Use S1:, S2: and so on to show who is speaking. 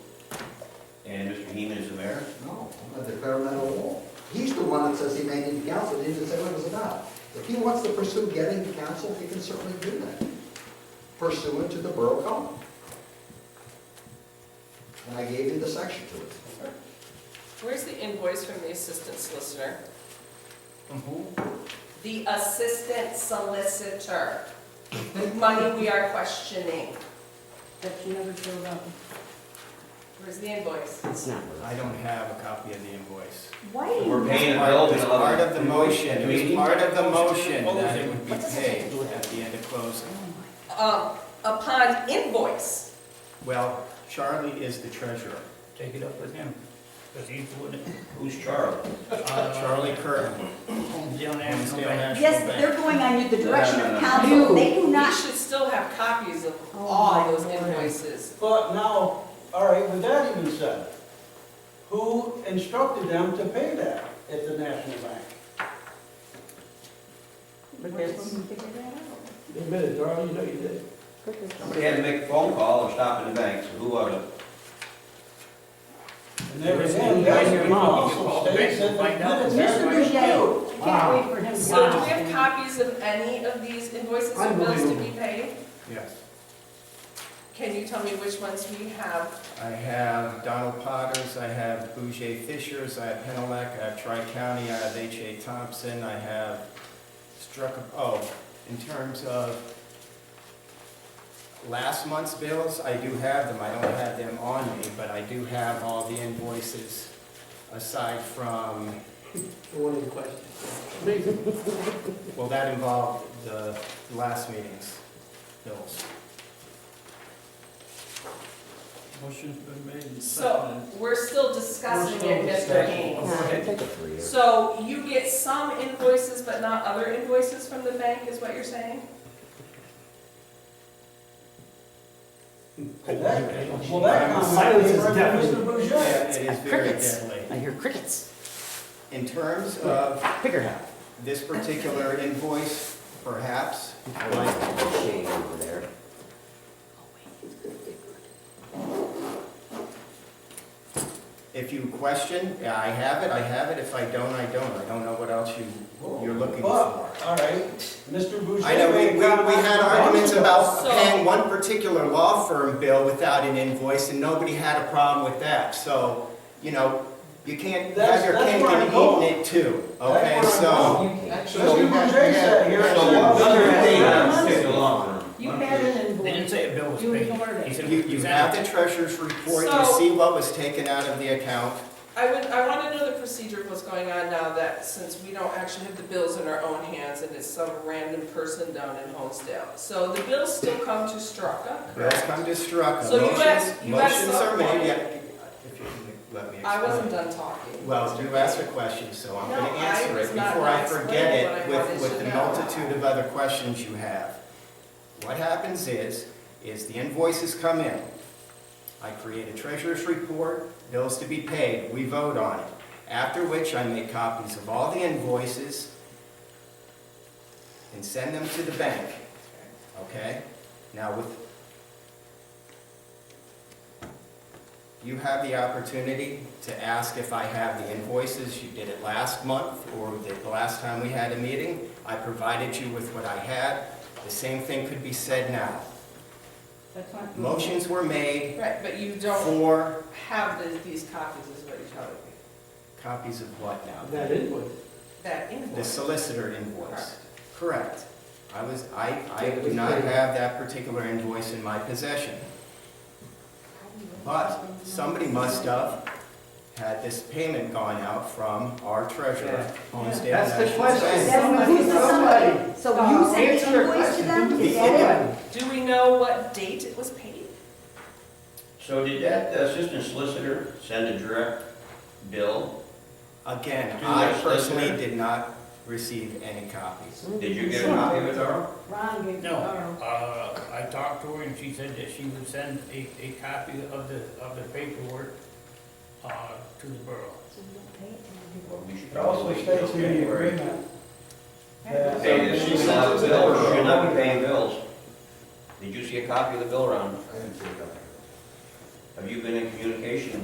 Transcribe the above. S1: And Mr. Heeman is the mayor?
S2: No, of the governmental law. He's the one that says he may need counsel, he doesn't say what it was about. If he wants to pursue getting counsel, he can certainly do that, pursuant to the borough code. And I gave you the section to it.
S3: Where's the invoice from the assistant solicitor?
S4: who?
S3: The assistant solicitor. The money we are questioning.
S5: that you never showed up.
S3: Where's the invoice?
S6: It's not worth
S4: I don't have a copy of the invoice.
S5: Why do
S1: We're
S5: you,
S1: paying a bill.
S4: It's part of the motion,
S1: Do
S4: it
S1: we-
S4: was part of the motion that it would be
S5: What does it have to
S4: paid
S5: do with
S4: at the end of closing.
S3: Um, upon invoice.
S4: Well, Charlie is the treasurer,
S7: Take it up with him, because he's the one that,
S1: Who's Charles?
S4: Charlie Curran.
S7: down there. and come
S4: Homestead
S7: back.
S4: National
S5: yes,
S4: Bank.
S5: they're going under the direction
S1: No, no, no,
S5: of
S1: no.
S5: council, they do
S3: We
S5: not,
S3: should still have copies of
S5: Oh, my
S3: all those
S5: Lord.
S3: invoices.
S8: But now, all right, with that even said, who instructed them to pay that at the National Bank?
S5: we're supposed to figure that out.
S7: They better, Darrell, you know you did.
S1: Somebody had to make a phone call or stop in the bank, so who was it?
S8: And there
S7: There
S8: was
S7: is
S8: one,
S7: any
S8: that
S7: way your
S8: was
S7: mom
S8: also
S7: can call
S8: states in
S7: back and
S8: the
S7: find out.
S8: minutes.
S5: Mr. Boucher, you
S8: Wow.
S5: can't wait for him. to
S3: So do we
S5: get out.
S3: have copies of any of these invoices and bills to be paid?
S4: Yes.
S3: Can you tell me which ones we have?
S4: I have Donald Potters, I have Bouger Fishers, I have Penelec, I have Tri-County, I have H.A. Thompson, I have Struck, oh, in terms of last month's bills, I do have them, I don't have them on me, but I do have all the invoices aside from,
S7: One of the questions.
S4: well, that involved the last meeting's bills.
S7: Motion's been made and
S3: So
S7: seconded.
S3: we're still discussing it,
S7: We're still
S3: Mr. Gaines.
S7: discussing.
S6: it. Take it for you.
S3: So you get some invoices but not other invoices from the bank, is what you're saying?
S8: Well, that- Well, that comment came right from Mr. Boucher.
S4: Yeah, It is very
S6: Crickets. I
S4: deadly.
S6: hear crickets.
S4: In terms of
S6: Figure it out.
S4: this particular invoice, perhaps,
S6: I like the shade over there.
S4: if you question, yeah, I have it, I have it, if I don't, I don't, I don't know what else you, you're looking
S6: Oh,
S8: But,
S4: for.
S8: all right, Mr. Boucher.
S4: I know, we, we, we had arguments about
S3: So-
S4: paying one particular law firm bill without an invoice, and nobody had a problem with that, so, you know, you can't
S8: That's-
S4: have your
S8: that's
S4: cake
S8: where I'm
S4: and
S8: going.
S4: eat it too,
S8: That's
S4: okay,
S8: where I'm
S4: so.
S8: going. Mr. Boucher sat here and
S1: So
S8: said.
S1: what other
S8: "Well,
S1: thing
S7: uh,
S8: that's
S1: I'm
S8: money."
S1: sticking along
S5: You had an
S7: They didn't
S5: invoice,
S7: say a bill was
S5: You
S7: paid.
S5: ignored it.
S7: He said,
S4: You, you have the treasurer's report, you
S3: So-
S4: see what was taken out of the account,
S3: I would, I want to know the procedure of what's going on now that since we don't actually have the bills in our own hands and it's some random person down in Holmesdale. So the bills still come to Straka.
S4: bills come to Straka.
S3: So you
S4: Motions-
S3: asked- you asked
S4: Motions are
S3: someone-
S4: made, yeah, if you can let me explain.
S3: I wasn't done talking.
S4: Well, you asked a question, so I'm going
S3: No,
S4: to
S3: I
S4: answer it
S3: was not
S4: before I
S3: explaining
S4: forget
S3: what I
S4: it
S3: wanted
S4: with,
S3: to
S4: with the
S3: know.
S4: multitude of other questions you have. What happens is, is the invoices come in. I create a treasurer's report, bills to be paid, we vote on it. After which I make copies of all the invoices and send them to the bank, okay? Now with, You have the opportunity to ask if I have the invoices. You did it last month or the last time we had a meeting. I provided you with what I had. The same thing could be said now.
S5: that's not. good.
S4: Motions were made
S3: Right, but you don't
S4: for
S3: have the- these copies is what you're telling me.
S4: copies of what now?
S7: That invoice.
S3: That
S4: The
S3: invoice.
S4: solicitor invoice.
S3: Correct.
S4: Correct. I was, I, I do not have that particular invoice in my possession. But somebody must have had this payment gone out from our treasurer, Homestead
S7: That's the
S4: National
S7: question.
S4: Bank.
S5: That's- who's the somebody? So you sent
S7: Answer
S5: the
S7: your
S5: invoice to
S7: question.
S5: them,
S4: The
S5: is that
S4: invoice.
S3: Do we know what date it was paid?
S1: So did that assistant solicitor send a direct bill?
S4: Again,
S1: Do
S4: I
S1: that,
S4: personally
S1: solicitor.
S4: did not receive any copies.
S5: it?
S1: Did you get a copy of it, Darrell?
S5: Ron gave it to
S7: No,
S5: Carl.
S7: uh, I talked to her and she said that she would send a, a copy of the, of the paperwork, uh, to the borough.
S5: So you don't pay it, and you
S1: Well, we should
S8: It also
S1: probably
S8: states in the
S1: January.
S8: agreement
S5: don't
S8: that.
S5: pay it.
S1: Hey, she should not be bill- she should not be paying bills. Did you see a copy of the bill round?
S2: I didn't see it.
S1: Have you been in communication